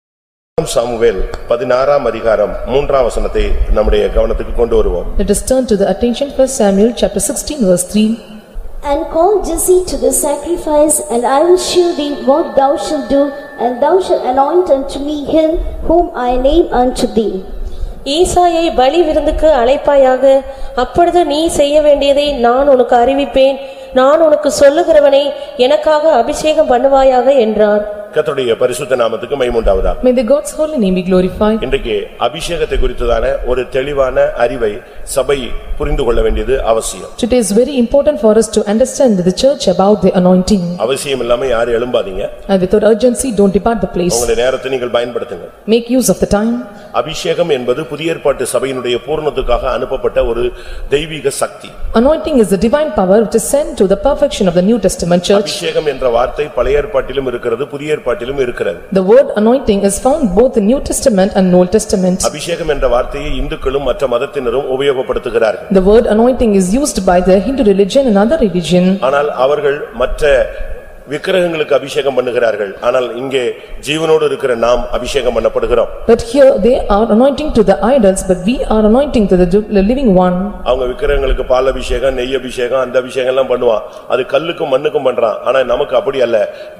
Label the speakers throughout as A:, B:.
A: இரண்டாம் சாமுவேல் பதினாறாம் அதிகாரம் மூன்றாம் வசனத்தை நம்முடைய கவனத்துக்கு கொண்டு வருவோம்
B: Let us turn to the attention for Samuel chapter 16 verse 3.
C: And call Jesse to the sacrifice, and I will shew thee what thou shalt do, and thou shalt anoint unto me him whom I name unto thee.
D: ஈசாயை பலி விருந்துக்கு அழைப்பாயாக அப்பொழுது நீ செய்ய வேண்டியதை நான் உனக்கு அறிவிப்பேன் நான் உனக்கு சொல்லுகிறவனை எனக்காக அபிஷேகம் பண்ணுவாயாக என்றார்
A: கர்த்தருடைய பரிசுத்த நாமத்துக்கு மைமுண்டாவதா
B: May the God's holy name be glorified.
A: இன்றைக்கு அபிஷேகத்தை குறித்ததான ஒரு தெளிவான அறிவை சபை புரிந்து கொள்ள வேண்டியது அவசியம்
B: Today is very important for us to understand the church about the anointing.
A: அவசியம் இல்லாம யாரும் எழும்பாதீங்க
B: And without urgency, don't depart the place.
A: உங்களுடைய நேரத்தை நீங்கள் பயன்படுத்துங்க
B: Make use of the time.
A: அபிஷேகம் என்பது புதிய ஏற்பாட்டு சபையினுடைய பூரணத்துக்காக அனுப்பப்பட்ட ஒரு தெய்வீக சக்தி
B: Anointing is the divine power which is sent to the perfection of the New Testament church.
A: அபிஷேகம் என்ற வார்த்தை பழைய ஏற்பாட்டிலும் இருக்கிறது புதிய ஏற்பாட்டிலும் இருக்கிறது
B: The word anointing is found both in New Testament and Old Testament.
A: அபிஷேகம் என்ற வார்த்தையை இந்துக்களும் மற்ற மதத்தினரும் உபயோகப்படுத்துகிறார்கள்
B: The word anointing is used by the Hindu religion and other religion.
A: ஆனால் அவர்கள் மற்ற விக்கிரகங்களுக்கு அபிஷேகம் பண்ணுகிறார்கள் ஆனால் இங்கே ஜீவனோடு இருக்கிற நாம் அபிஷேகம் பண்ணப்படுகிறோம்
B: But here they are anointing to the idols, but we are anointing to the du- the living one.
A: அவங்க விக்கிரகங்களுக்கு பால் அபிஷேகம் நெய் அபிஷேகம் அந்த அபிஷேகம் எல்லாம் பண்ணுவான் அது கல்லுக்கும் மண்ணுக்கும் பண்றான் ஆனா நமக்கு அப்படி அல்ல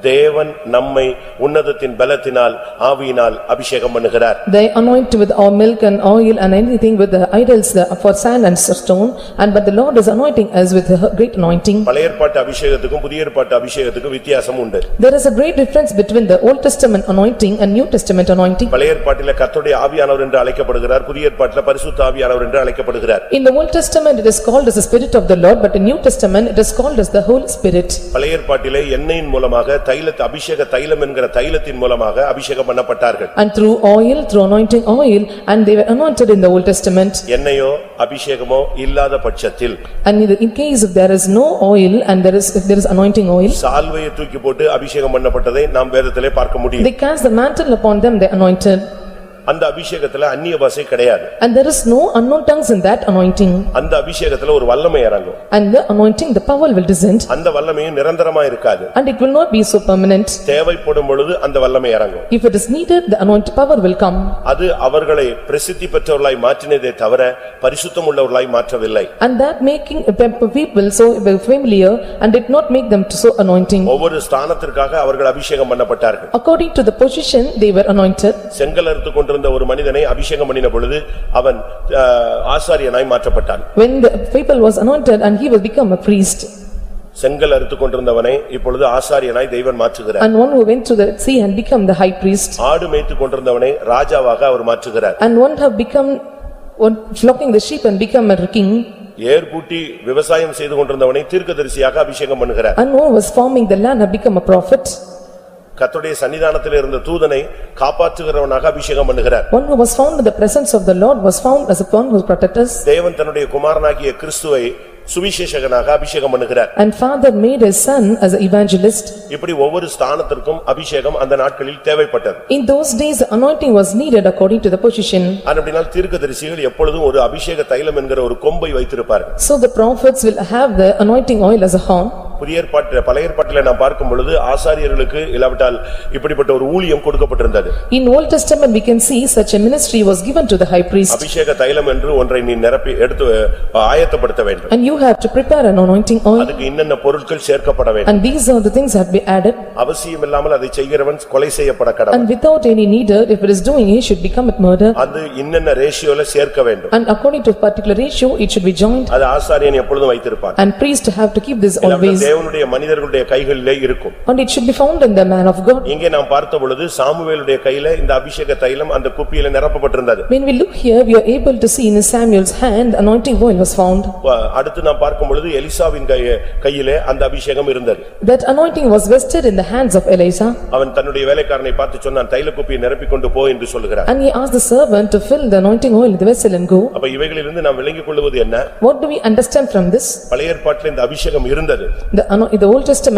A: தேவன் நம்மை உன்னதத்தின் பலத்தினால் ஆவியினால் அபிஷேகம் பண்ணுகிறார்
B: They anoint with our milk and oil and anything with the idols the- for sand and stone. And but the Lord is anointing us with a great anointing.
A: பழைய ஏற்பாட்டு அபிஷேகத்துக்கும் புதிய ஏற்பாட்டு அபிஷேகத்துக்கும் வித்தியாசம் உண்டு
B: There is a great difference between the Old Testament anointing and New Testament anointing.
A: பழைய ஏற்பாட்டில கர்த்தருடைய ஆவியானவர் என்று அழைக்கப்படுகிறார் புதிய ஏற்பாட்டில பரிசுத்த ஆவியானவர் என்று அழைக்கப்படுகிறார்
B: In the Old Testament, it is called as the Spirit of the Lord, but in New Testament, it is called as the Holy Spirit.
A: பழைய ஏற்பாட்டிலே எண்ணெயின் மூலமாக தைலத் அபிஷேக தைலம் என்கிற தைலத்தின் மூலமாக அபிஷேகம் பண்ணப்பட்டார்கள்
B: And through oil, through anointing oil, and they were anointed in the Old Testament.
A: எண்ணெயோ அபிஷேகமோ இல்லாத பட்சத்தில்
B: And in the- in case if there is no oil and there is, if there is anointing oil,
A: சால்வையை தூக்கி போட்டு அபிஷேகம் பண்ணப்பட்டதை நாம் வேதத்திலே பார்க்க முடியும்
B: they cast the mantle upon them, they anointed.
A: அந்த அபிஷேகத்துல அந்நிய பாஷை கிடையாது
B: And there is no unknown tongues in that anointing.
A: அந்த அபிஷேகத்துல ஒரு வல்லமை இறங்கும்
B: And the anointing, the power will descend,
A: அந்த வல்லமையும் நிரந்தரமா இருக்காது
B: and it will not be so permanent.
A: தேவைப்படும் பொழுது அந்த வல்லமை இறங்கும்
B: If it is needed, the anointed power will come.
A: அது அவர்களை பிரசித்தி பெற்றவர்களாய் மாற்றினதே தவிர பரிசுத்தம் உள்ளவர்களாய் மாற்றவில்ly
B: And that making the people so familiar and did not make them so anointing.
A: ஒவ்வொரு ஸ்தானத்திற்காக அவர்கள் அபிஷேகம் பண்ணப்பட்டார்கள்
B: According to the position, they were anointed.
A: செங்கல் அறுத்துக் கொண்டிருந்த ஒரு மனிதனை அபிஷேகம் பண்ணின பொழுது அவன் ஆ, ஆசாரியனாய் மாற்றப்பட்டான்
B: When the people was anointed and he will become a priest.
A: செங்கல் அறுத்துக் கொண்டிருந்தவனை இப்பொழுது ஆசாரியனாய் தெய்வன் மாற்றுகிறார்
B: And one who went to the sea and become the high priest.
A: ஆடு மேய்த்துக் கொண்டிருந்தவனை ராஜாவாக அவர் மாற்றுகிறார்
B: And one have become, one flocking the sheep and become a king.
A: ஏர்பூட்டி விவசாயம் செய்து கொண்டிருந்தவனை தீர்க்கதரிசியாக அபிஷேகம் பண்ணுகிறார்
B: And one was farming the land have become a prophet.
A: கர்த்தருடைய சன்னிதானத்தில் இருந்த தூதனை காப்பாற்றுகிறவனாக அபிஷேகம் பண்ணுகிறார்
B: One who was found in the presence of the Lord was found as a one who protected us.
A: தேவன் தன்னுடைய குமாரனாகிய கிறிஸ்துவை சுவிசேஷகனாக அபிஷேகம் பண்ணுகிறார்
B: And father made his son as an evangelist.
A: இப்படி ஒவ்வொரு ஸ்தானத்திற்கும் அபிஷேகம் அந்த நாட்களில் தேவைப்பட்டது
B: In those days, the anointing was needed according to the position.
A: அப்படினால் தீர்க்கதரிசிகள் எப்பொழுதும் ஒரு அபிஷேக தைலம் என்கிற ஒரு கொம்பை வைத்திருப்பார்கள்
B: So the prophets will have the anointing oil as a horn.
A: புதிய ஏற்பாட்டில் பழைய ஏற்பாட்டில் நாம் பார்க்கும் பொழுது ஆசாரியர்களுக்கு இல்லாவிட்டால் இப்படிப்பட்ட ஒரு ஊழியம் கொடுக்கப்பட்டிருந்தது
B: In Old Testament, we can see such a ministry was given to the high priest.
A: அபிஷேக தைலம் என்று ஒன்றை நீ நிரப்பி எடுத்து அஹ், ஆயத்தப்படுத்த வேண்டும்
B: And you have to prepare an anointing oil.
A: அதுக்கு என்னென்ன பொருட்கள் சேர்க்கப்பட வேண்டும்
B: And these are the things that be added.
A: அவசியம் இல்லாமல் அதை செய்கிறவன் கொலை செய்யப்பட கடவன்
B: And without any needer, if it is doing, he should become a murder.
A: அது என்னென்ன ரேஷியோல சேர்க்க வேண்டும்
B: And according to particular ratio, it should be joined.
A: அது ஆசாரியன் எப்பொழுதும் வைத்திருப்பான்
B: And priest have to keep this
A: இல்லாவிட்டால்
B: always.
A: தேவனுடைய மனிதர்களுடைய கைகளிலே இருக்கும்
B: And it should be found in the man of God.
A: இங்கே நாம் பார்த்த பொழுது சாமுவேலுடைய கையில இந்த அபிஷேக தைலம் அந்த குப்பியில நிரப்பப்பட்டிருந்தது
B: When we look here, we are able to see in Samuel's hand, anointing oil was found.
A: வ- அடுத்து நாம் பார்க்கும் பொழுது எலிசாவின் கைய- கையிலே அந்த அபிஷேகம் இருந்தது
B: That anointing was vested in the hands of Eliza.
A: அவன் தன்னுடைய வேலைக்காரனை பார்த்து சொன்னான் தைல குப்பியை நிரப்பிக்கொண்டு போ என்று சொல்லுகிறான்
B: And he asked the servant to fill the anointing oil in the vessel and go.
A: அப்ப இவைகளிலிருந்து நாம் விளங்கிக் கொள்வது என்ன
B: What do we understand from this?
A: பழைய ஏற்பாட்டில் இந்த அபிஷேகம் இருந்தது
B: The ano- the Old Testament